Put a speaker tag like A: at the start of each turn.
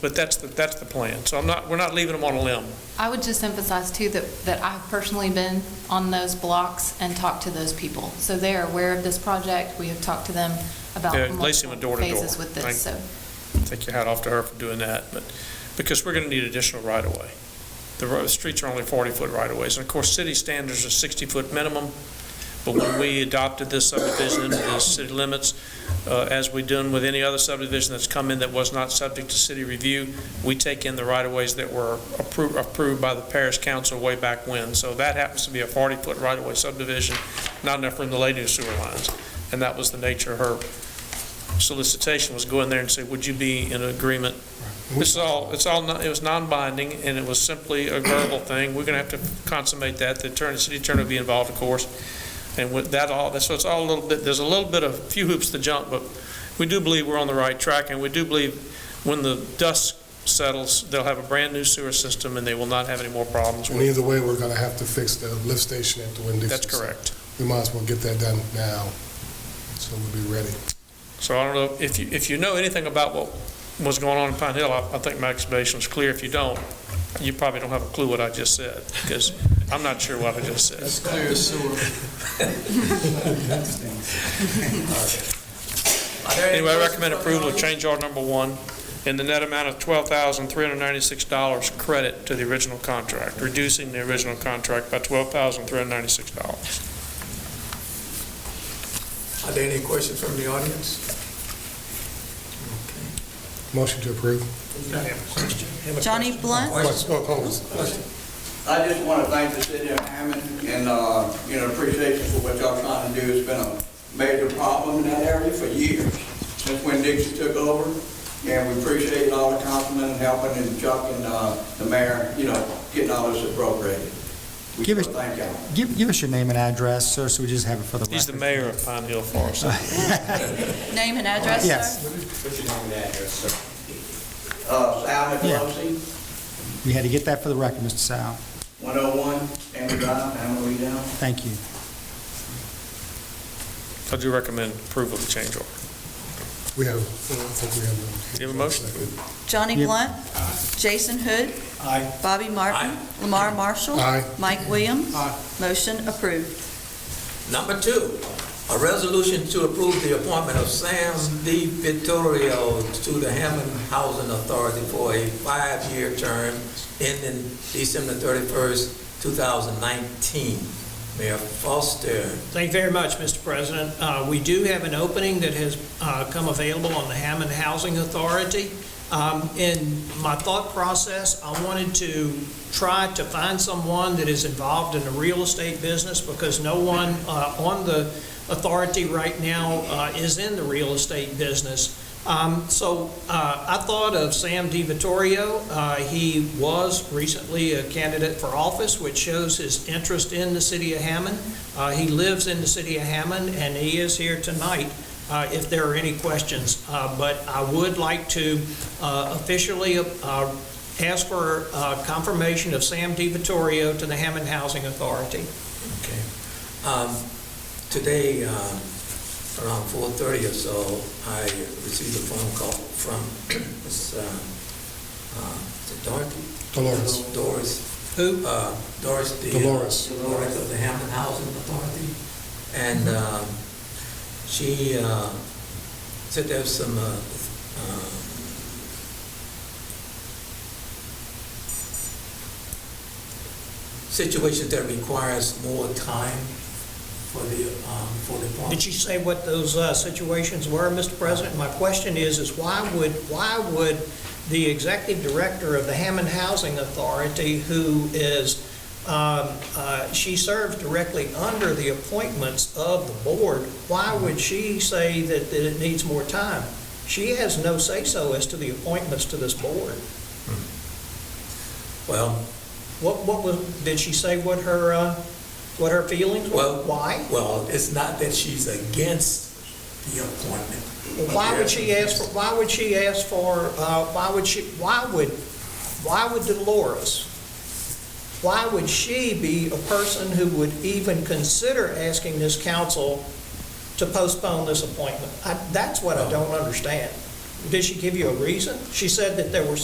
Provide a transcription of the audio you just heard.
A: But that's, the that's the plan. So I'm not, we're not leaving them on a limb.
B: I would just emphasize too that, that I've personally been on those blocks and talked to those people. So they are aware of this project. We have talked to them about
A: Yeah, Lacey went
B: multiple
A: door to door.
B: phases with this, so.
A: Take your hat off to her for doing that, but, because we're going to need additional right-of-way. The road, the streets are only 40-foot right-of-ways, and of course, city standards are 60-foot minimum, but when we adopted this subdivision into the city limits, uh, as we done with any other subdivision that's come in that was not subject to city review, we take in the right-of-ways that were approved, approved by the parish council way back when. So that happens to be a 40-foot right-of-way subdivision, not enough room to lay new sewer lines. And that was the nature of her solicitation was go in there and say, would you be in agreement? This is all, it's all, non- it was non-binding, and it was simply a verbal thing. We're going to have to consummate that. The attorney, city attorney will be involved, of course. And with that all, so it's all a little bit, there's a little bit of, few hoops to jump, but we do believe we're on the right track, and we do believe when the dust settles, they'll have a brand-new sewer system, and they will not have any more problems
C: And
A: with it.
C: either way, we're gonna have to fix the lift station at the Winn-Dixie.
A: That's correct.
C: We might as well get that done now, so we'll be ready.
A: So I don't know, if you, if you know anything about what was going on in Pine Hill, I, I think my explanation was clear. If you don't, you probably don't have a clue what I just said, because I'm not sure what I just said.
D: clear as sewer.
A: Anyway, I recommend approval of change order number one in the net amount of twelve thousand, three hundred ninety-six dollars credit to the original contract, reducing the original contract by twelve thousand, three hundred ninety-six dollars.
D: Are there any questions from the audience?
C: Motion to approve.
E: Johnny Blunt?
C: What's- oh, oh,
F: I just want to thank the city of Hammond and, uh, you know, appreciation for what y'all trying to do. It's been a major problem in that area for years, since when Dixie took over. And we appreciate all the councilmen and helping and Chuck and, uh, the mayor, you know, getting all this appropriated. We
G: Give us-
F: Thank y'all.
G: Give, give us your name and address, sir, so we just have it for the record.
A: He's the mayor of Pine Hill Forest.
E: Name and address,
G: Yes.
E: sir?
F: Uh, Sal
G: Yeah.
F: Nicolosi,
G: We had to get that for the record, Mr. Sal.
F: 101 Amber Drive, oh Hammond, Louisiana.
G: Thank you.
A: I do recommend approval of the change order.
C: We have, I think we have.
A: Do you have a motion?
E: Johnny
G: Yep.
E: Blunt? Jason Hood?
D: Aye.
E: Bobby Martin? Lamar Marshall?
C: Aye.
E: Mike Williams?
D: Aye.
E: Motion approved.
H: Number two, a resolution to approve the appointment of Sam D. Vittorio to the Hammond Housing Authority for a five-year term ending December 31st, 2019. Mayor Foster.
I: Thank you very much, Mr. President. Uh, We do have an opening that has uh, come available on the Hammond Housing Authority. Um, In my thought process, I wanted to try to find someone that is involved in the real estate business because no one uh, on the authority right now uh, is in the real estate business. Um, So uh, I thought of Sam DiVittorio. Uh, He was recently a candidate for office, which shows his interest in the city of Hammond. Uh, He lives in the city of Hammond, and he is here tonight uh, if there are any questions. Uh, But I would like to uh, officially uh, ask for uh, confirmation of Sam DiVittorio to the Hammond Housing Authority.
H: Okay. Um, Today, um, around 4:30 or so, I received a phone call from Ms. um, uh, is it Dorothy?
C: Dolores.
H: Doris
I: Who?
H: uh, Doris, the...
C: Dolores.
H: Dolores of the Hampton Housing Authority. And um, she uh, said there's some uh, um, situations that requires more time for the, um, for the... form.
I: Did she say what those uh, situations were, Mr. President? My question is, is why would, why would the executive director of the Hammond Housing Authority, who is, um, uh, she serves directly under the appointments of the board, why would she say that that it needs more time? She has no say-so as to the appointments to this board.
H: Well,
I: What, what was, did she say what her, uh, what her feelings were?
H: Well-
I: Why?
H: well, it's not that she's against the appointment.
I: Why would she ask, for? why would she ask for, uh, why would she, why would, why would Dolores, why would she be a person who would even consider asking this council to postpone this appointment? I- That's what I don't understand. Did she give you a reason? She said that there were